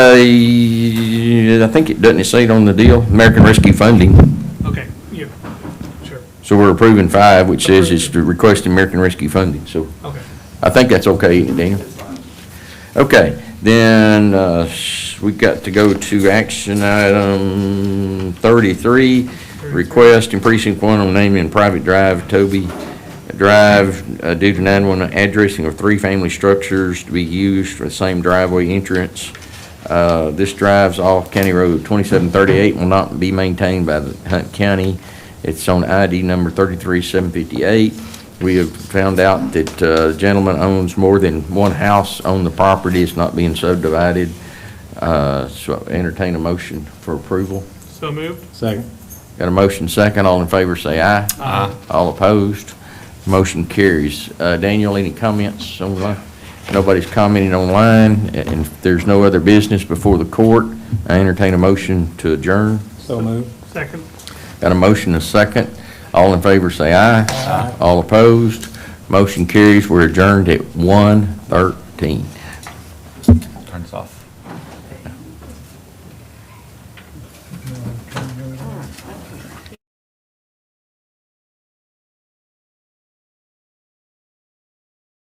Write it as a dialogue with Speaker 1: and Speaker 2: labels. Speaker 1: Uh, I think it, doesn't it say it on the deal, American Rescue Funding?
Speaker 2: Okay, yeah, sure,
Speaker 1: So we're approving five, which says it's to request American Rescue Funding, so
Speaker 2: okay.
Speaker 1: I think that's okay, isn't it, Dana? Okay, then, uh, s- we got to go to action item thirty-three, request in precinct one on naming private drive Toby Drive uh, due to nine-one addressing of three family structures to be used for the same driveway entrance. Uh, this drive's off County Road twenty-seven thirty-eight, will not be maintained by the Hunt County. It's on ID number thirty-three seven fifty-eight. We have found out that uh, gentleman owns more than one house on the property, it's not being subdivided. Uh, So entertain a motion for approval.
Speaker 2: So moved?
Speaker 3: Second.
Speaker 1: Got a motion second, all in favor say aye.
Speaker 2: Aye.
Speaker 1: All opposed, motion carries. Uh, Daniel, any comments online? Nobody's commenting online, and if there's no other business before the court, I entertain a motion to adjourn.
Speaker 3: So moved.
Speaker 2: Second?
Speaker 1: Got a motion, a second. All in favor, say aye. Aye. All opposed, motion carries. We're adjourned at 1:13.
Speaker 4: Turn this off.